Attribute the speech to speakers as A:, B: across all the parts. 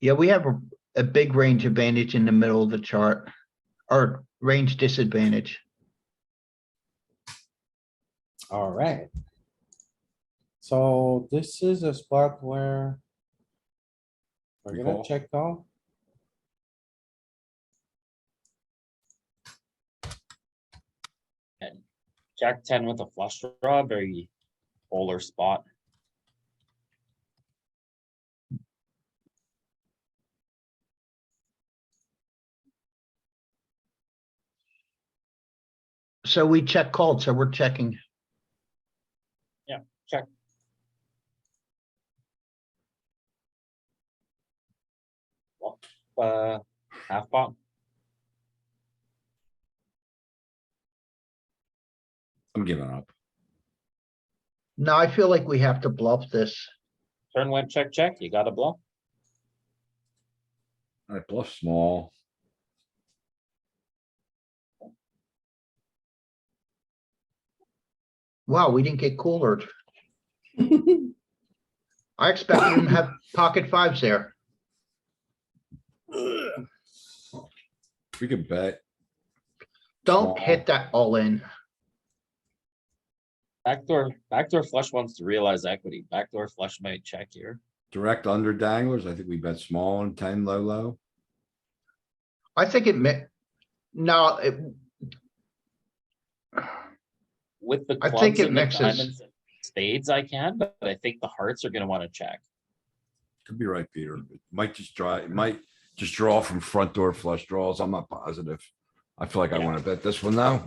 A: Yeah, we have a, a big range advantage in the middle of the chart, or range disadvantage.
B: Alright. So this is a spot where. We're
C: We
B: gonna
C: call.
B: check call.
C: Jack ten with a flush draw, very polar spot.
A: So we check called, so we're checking.
C: Uh, half pot.
D: I'm giving up.
A: Now I feel like we have to bluff this.
C: Turn went check, check. You gotta bluff.
D: I bluff small.
A: Wow, we didn't get coolered. I expected him to have pocket fives there.
D: We could bet.
A: Don't
D: Aw.
A: hit that all in.
C: Backdoor, backdoor flush wants to realize equity. Backdoor flush might check here.
D: Direct under danglers. I think we bet small and ten low, low.
A: I think it meant, no, it,
C: With the
A: I think
C: clubs
A: it
C: and the
A: mixes.
C: diamonds and spades I can, but I think the hearts are gonna wanna check.
D: Could be right, Peter. It Might just try, it might just draw from front door flush draws. I'm not positive. I feel like I
C: Yeah.
D: wanna bet this one now.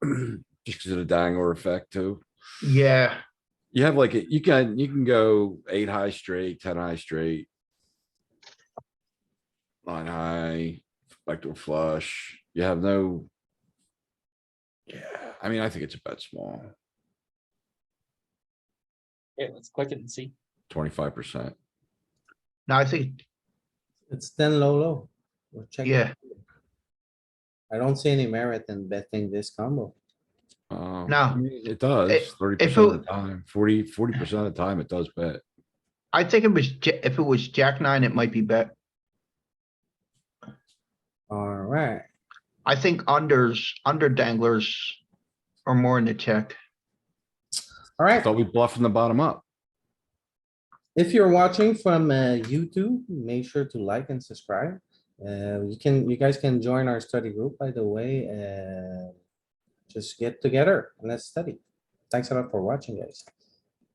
D: Just because of the dangler effect too.
A: yeah,
D: You have like, a- you can, you can go eight high straight, ten high straight. Nine high, backdoor flush, you have no. Yeah, I mean, I think it's a bet small,
C: Okay, let's click it and see.
D: twenty-five percent.
A: no, I think,
B: It's ten low, low. We're checking.
A: yeah,
B: I don't see any merit in betting this combo.
A: No.
D: Um, It does, thirty percent of the time, 40 40 percent of the time, it does bet.
A: I think it was, ja- if it was jack nine, it might be bet.
B: Alright,
A: I think unders, under danglers are more in the check.
D: I
B: alright.
D: thought we bluff from the bottom up.
B: If you're watching from uh, YouTube, make sure to like and subscribe. Uh, you can, you guys can join our study group, by the way, uh, just get together and let's study. Thanks a lot for watching, guys.